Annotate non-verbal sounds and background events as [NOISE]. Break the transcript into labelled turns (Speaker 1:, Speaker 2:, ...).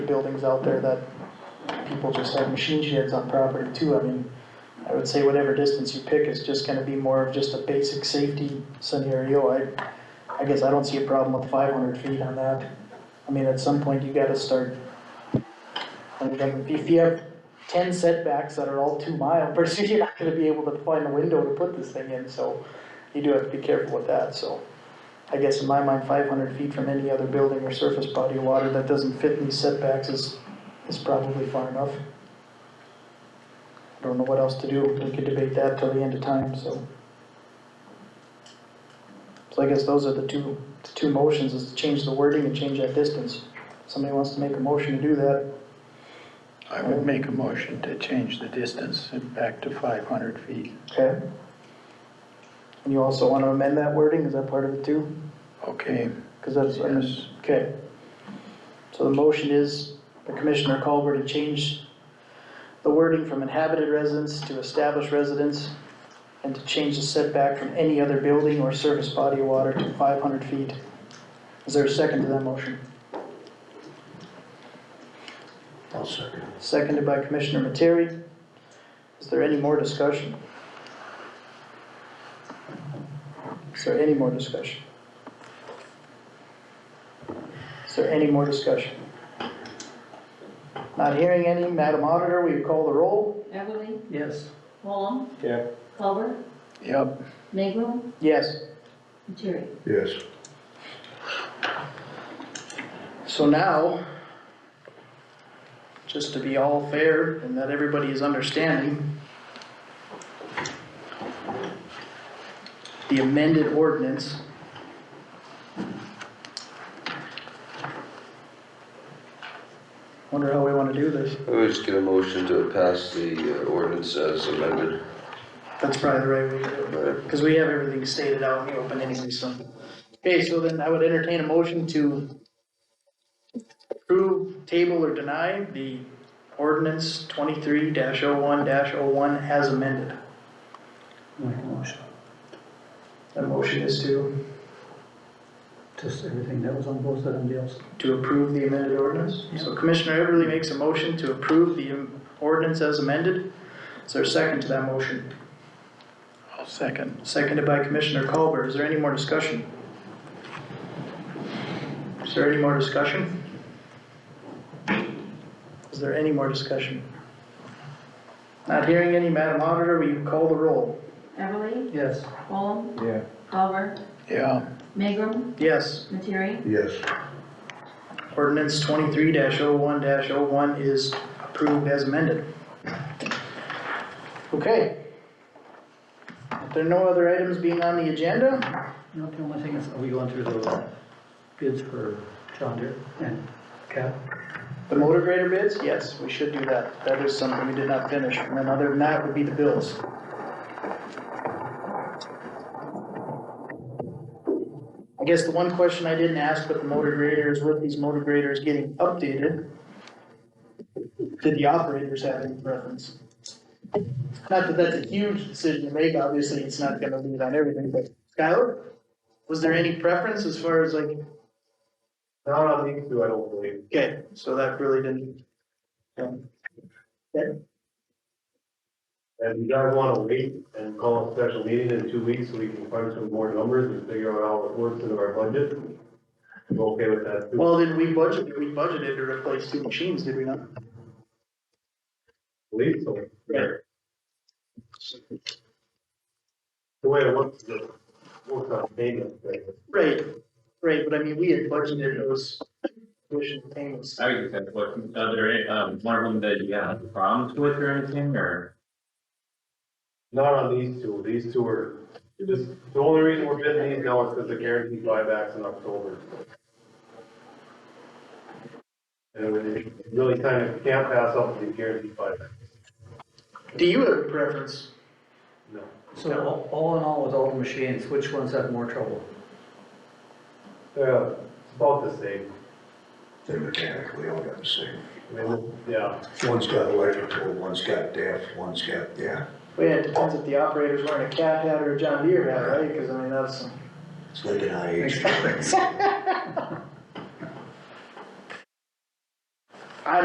Speaker 1: buildings out there that people just have machine sheds on property too, I mean, I would say whatever distance you pick is just gonna be more of just a basic safety scenario, I, I guess I don't see a problem with five hundred feet on that. I mean, at some point, you gotta start. I mean, if you have ten setbacks that are all two mile, pretty soon [LAUGHS] you're not gonna be able to find a window to put this thing in, so you do have to be careful with that, so. I guess in my mind, five hundred feet from any other building or surface body of water that doesn't fit these setbacks is, is probably far enough. I Don't know what else to do, we could debate that till the end of time, so. So I guess those are the two, the two motions, is to change the wording and change that distance. Somebody wants to make a motion to do that,
Speaker 2: I would make a motion to change the distance back to five hundred feet.
Speaker 1: okay? And you also wanna amend that wording, is that part of it too?
Speaker 2: Okay,
Speaker 1: Cause that's, I mean,
Speaker 2: yes,
Speaker 1: Okay. So the motion is for Commissioner Culver to change the wording from inhabited residence to established residence and to change the setback from any other building or surface body of water to 500 feet. Is there a second to that motion?
Speaker 3: I'll second.
Speaker 1: Seconded by Commissioner Materi. Is there any more discussion? Is there any more discussion? Is there any more discussion? Not hearing any, Madam Auditor, will you call the roll?
Speaker 4: Everly,
Speaker 2: yes,
Speaker 4: Walm,
Speaker 3: Yeah.
Speaker 4: Culver,
Speaker 2: yep,
Speaker 4: Magrum,
Speaker 1: Yes.
Speaker 4: Materi.
Speaker 3: Yes.
Speaker 1: So now, just to be all fair and that everybody is understanding, the amended ordinance Wonder how we wanna do this.
Speaker 5: I would just get a motion to pass the uh, ordinance as amended.
Speaker 1: That's probably the right way to do it. Because we have everything stated out in the open anyway, so. Okay, so then I would entertain a motion to approve, table, or deny the ordinance twenty-three dash oh one dash oh one as amended.
Speaker 2: make a motion.
Speaker 1: The motion is to,
Speaker 2: Just everything that was on both of them deals.
Speaker 1: to approve the amended ordinance. So Commissioner Everly makes a motion to approve the um, ordinance as amended. Is there a second to that motion?
Speaker 2: I'll second,
Speaker 1: Seconded by Commissioner Culver. Is there any more discussion? Is there any more discussion? Is there any more discussion? Not hearing any, Madam Auditor, will you call the roll?
Speaker 4: Everly,
Speaker 2: yes,
Speaker 4: Walm,
Speaker 3: Yeah.
Speaker 4: Culver,
Speaker 2: yeah,
Speaker 4: Magrum,
Speaker 1: Yes,
Speaker 4: Materi.
Speaker 3: Yes.
Speaker 1: ordinance twenty-three one one is approved as amended. Okay. If there are no other items being on the agenda,
Speaker 6: No, the only thing is, are we going through the bids for John Deere and Cap?
Speaker 1: The motor grader bids, yes, we should do that. That is something we did not finish. And then other than that would be the bills. I guess the one question I didn't ask with the motor grader is with these motor graders getting updated, did the operators have any preference? Not that that's a huge decision to make, obviously, it's not gonna lead on everything, but Skylar, was there any preference as far as like,
Speaker 3: Not on these two, I don't believe.
Speaker 1: Okay, so that really didn't. um,
Speaker 3: And you guys wanna wait and call a special meeting in two weeks so we can find some more numbers and figure out how it works into our budget? I'm okay with that too.
Speaker 1: Well, did we budget, we budgeted to replace two machines, did we not?
Speaker 3: Believe so.
Speaker 1: Right.
Speaker 3: The way it looks, it looks on payment, right?
Speaker 1: Right, right, but I mean, we had budgeted those tuition payments.
Speaker 7: I would say, what, are there, any, um, one of them that you have problems with or anything, or?
Speaker 3: Not on these two, these two are, this, the only reason we're bidding these now is because the guaranteed buybacks in October. And we really kind of can't pass up the guaranteed buyback,
Speaker 1: Do you have a preference?
Speaker 3: no.
Speaker 6: So all- all in all, with all the machines, which ones have more trouble?
Speaker 3: Yeah, it's about the same,
Speaker 8: They're mechanically all got the same.
Speaker 3: I mean, yeah,
Speaker 8: One's got electrical, one's got DEF, one's got, yeah,
Speaker 1: Well, yeah, it depends if the operator's wearing a cat hat or a John Deere hat, right? Cause I mean, that's,
Speaker 8: it's like an IH.